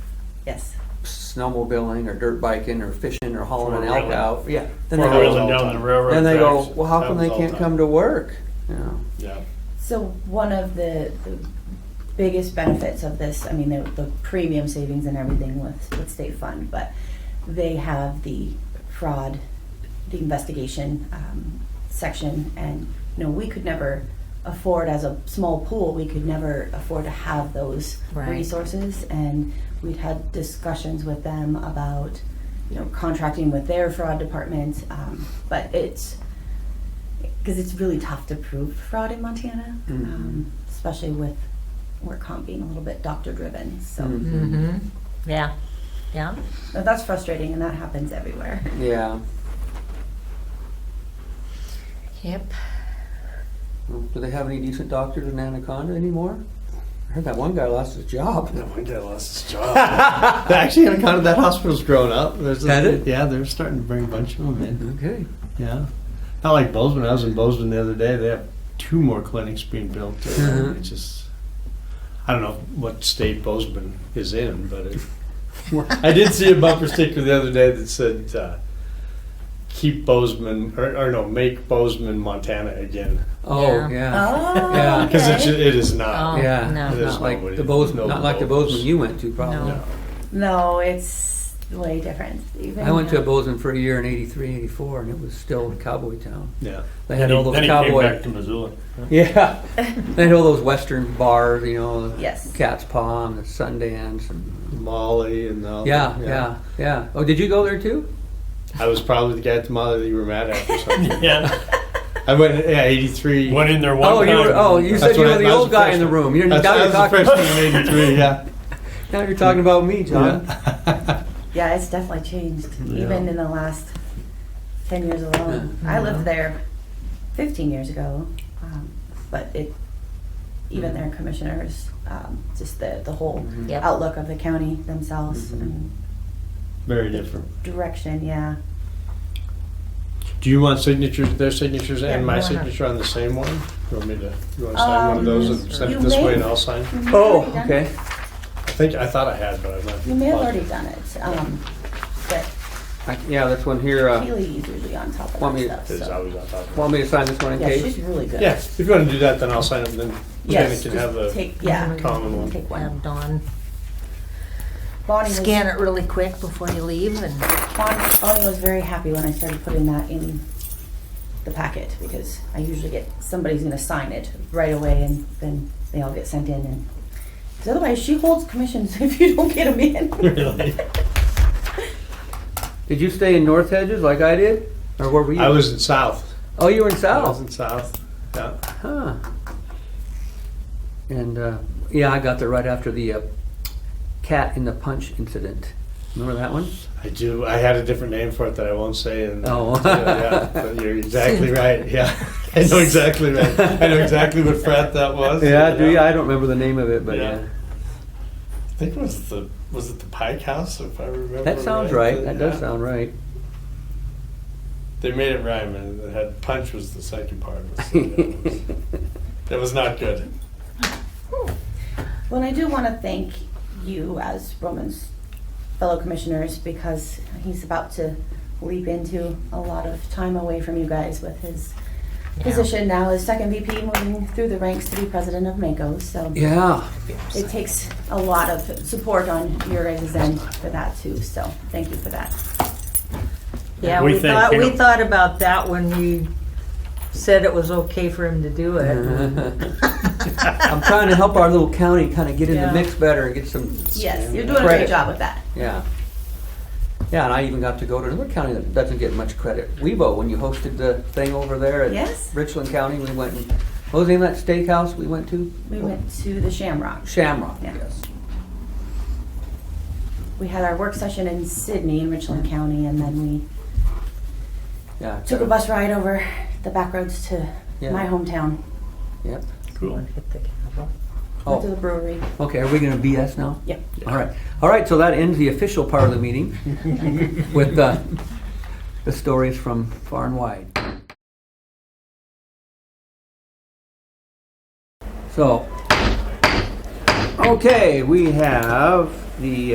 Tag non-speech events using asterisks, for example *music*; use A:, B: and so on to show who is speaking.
A: Yes.
B: snowmobiling or dirt biking or fishing or hauling an elk
C: Four-wheeling.
B: out, yeah. Then they
C: Four wheeling
B: go,
C: down the railroad.
B: then they go,
C: tracks.
B: well, how
C: That
B: come they
C: was all
B: can't
C: time.
B: come to work? You know,
C: Yeah,
A: So one of the, the biggest benefits of this, I mean, the, the premium savings and everything with, with state fund, but they have the fraud, the investigation um, section, and you know, we could never afford as a small pool, we could never afford to have those
D: Right.
A: resources, and we'd had discussions with them about you know contracting with their fraud department, um, but it's because it's really tough to prove fraud in Montana,
B: Mm-hmm.
A: um, especially with work comp being a little bit doctor driven. So
B: Mm.
D: Mm-hmm. Yeah. Yeah.
A: but that's frustrating, and that happens everywhere.
B: yeah.
D: Yep.
B: Well, Do they have any decent doctors in Anaconda anymore? I heard that one guy lost his job.
C: no wonder I lost his job.
E: *laughs* But actually, on account of that hospital's grown up. There's
B: Had it?
E: Yeah, they're starting to bring a bunch of them in.
B: Okay.
E: Yeah. Not like Bozeman. I was in Bozeman the other day. They have two more clinics
B: *laughs*
E: being built.
B: Mhm.
E: It's just, I don't know what state Bozeman is in, but it, *laughs* I did see a bumper sticker the other day that said, uh, keep Bozeman, or, or no, make Bozeman, Montana again.
B: Oh,
D: Yeah.
B: yeah.
A: Oh,
B: Yeah,
E: Because it is
D: Oh,
E: not.
B: Yeah.
D: no.
E: There's
B: Not like
E: nobody-
B: the Bozeman,
E: no
B: not like the
E: Bozemans.
B: Bozeman you went to probably.
E: No.
A: no, it's way different. Even
B: I went to
A: now.
B: a Bozeman for a year in eighty-three, eighty-four, and it was still cowboy town.
E: Yeah.
B: They
C: Then
B: had
C: he,
B: all those
C: then he came
B: cowboy.
C: back to Missoula.
B: *laughs* Yeah. They had all those western bars, you know, the
A: Yes.
B: Cat's Paw and the Sundance and,
E: Molly and all
B: yeah,
E: that,
B: yeah, yeah. Oh, did you go there too?
E: I was probably the guy at the Molly that you were mad at
A: *laughs*
E: or something.
C: Yeah,
E: I went, yeah, 83.
C: went in there one
B: Oh,
C: time.
B: you were, oh, you
E: That's
B: said you
E: when
B: were
E: I-
B: the
E: I was
B: old
E: a
B: guy in the
E: freshman.
B: room. You're, now
E: That's, I
B: you're
E: was a
B: talking,
E: freshman in 83, yeah.
B: now you're talking about me, *laughs* John.
A: *laughs*
E: yeah.
A: yeah, it's definitely changed.
E: Yeah.
A: Even in the last ten years alone, I lived there fifteen years ago, um, but it even their commissioners, um, just the the whole
B: Mm-hmm.
D: Yep.
A: outlook of the county themselves and
E: Very different.
A: direction. Yeah.
E: Do you want signatures, their signatures
D: Yeah,
E: and my
D: why not?
E: signature on the same one? You want me to, you want to sign one of those and
A: Um,
E: send
A: you
E: it this
A: may-
E: way and I'll sign?
A: You may have
B: Oh,
A: Mm-hmm. already done
B: okay.
E: I think, I thought I had, but I'm not.
A: it. You may have already done it, um, but
B: I- Yeah, this one here, uh,
A: Kaylee's usually on top of
B: want me-
A: that stuff.
E: It's
A: So.
E: always on top of it.
B: want me to sign this one in
A: Yeah,
B: case?
A: she's really good.
E: Yeah, if you want to do that, then I'll sign it, then Jenny
A: Yes,
E: can
A: just
E: have the *laughs*
A: take, yeah,
E: common one.
A: take one.
D: Have Um, Dawn
A: Bonnie was,
D: scan it really quick before you leave, and
A: Bonnie, Bonnie was very happy when I started putting that in the packet because I usually get, somebody's gonna sign it right away and then they all get sent in and, 'cause otherwise she holds commissions *laughs* if you don't get them in.
E: Really?
B: Did you stay in North Hedges like I did? Or where were you?
E: I was in South.
B: Oh, you were in
E: I was
B: South.
E: in South, yeah.
B: Huh. And uh, yeah, I got there right after the uh, cat in the punch incident. Remember that one?
E: I do. I had a different name for it that I won't say. And uh,
B: Oh.
E: yeah, but
B: *laughs*
E: you're exactly right. Yeah, *laughs* I know exactly right. I know exactly what frat that was.
B: Yeah, do you?
E: know.
B: I don't remember the name of it, but
E: Yeah.
B: yeah.
E: I think it was the was it the Pike House, if I remember.
B: that sounds right.
E: But,
B: That does
E: yeah.
B: sound right. *laughs*
E: They made it rhyme, and it had punch was the second part.
B: *laughs*
E: So, yeah, it was, that was not good.
A: Well, I do wanna thank you as Roman's fellow commissioners because he's about to leap into a lot of time away from you guys with his
D: Yeah.
A: position now as second VP, moving through the ranks to be president of Mako. So
B: Yeah.
A: it takes a lot of support on your guys' end for that too. So thank you for that.
D: yeah,
C: We
D: we,
C: think,
D: thought
C: you
D: we
C: know-
D: thought about that when we said it was okay for him to do it.
B: Uh-huh. I'm trying to help our little county kind of get in the
D: Yeah.
B: mix better and get some.
A: Yes, you're doing a great
B: Credit.
A: job with that.
B: Yeah. Yeah, and I even got to go to another county that doesn't get much credit. Webo, when you hosted the thing over there at
A: Yes.
B: Richland County, we went and, what was the name of that steakhouse we went to?
A: We went to the Shamrock.
B: Shamrock,
A: Yeah.
B: yes.
A: We had our work session in Sydney in Richland County and then we
B: Yeah.
A: took a bus ride over the back roads to
B: Yeah.
A: my hometown,
B: Yep.
C: Cool.
D: Hit the gavel.
A: went to
B: Oh,
A: the brewery.
B: okay, are we gonna BS now?
A: Yep.
B: All right, all right, so that ends the official part of the meeting with uh, the stories from far and wide. So, okay, we have the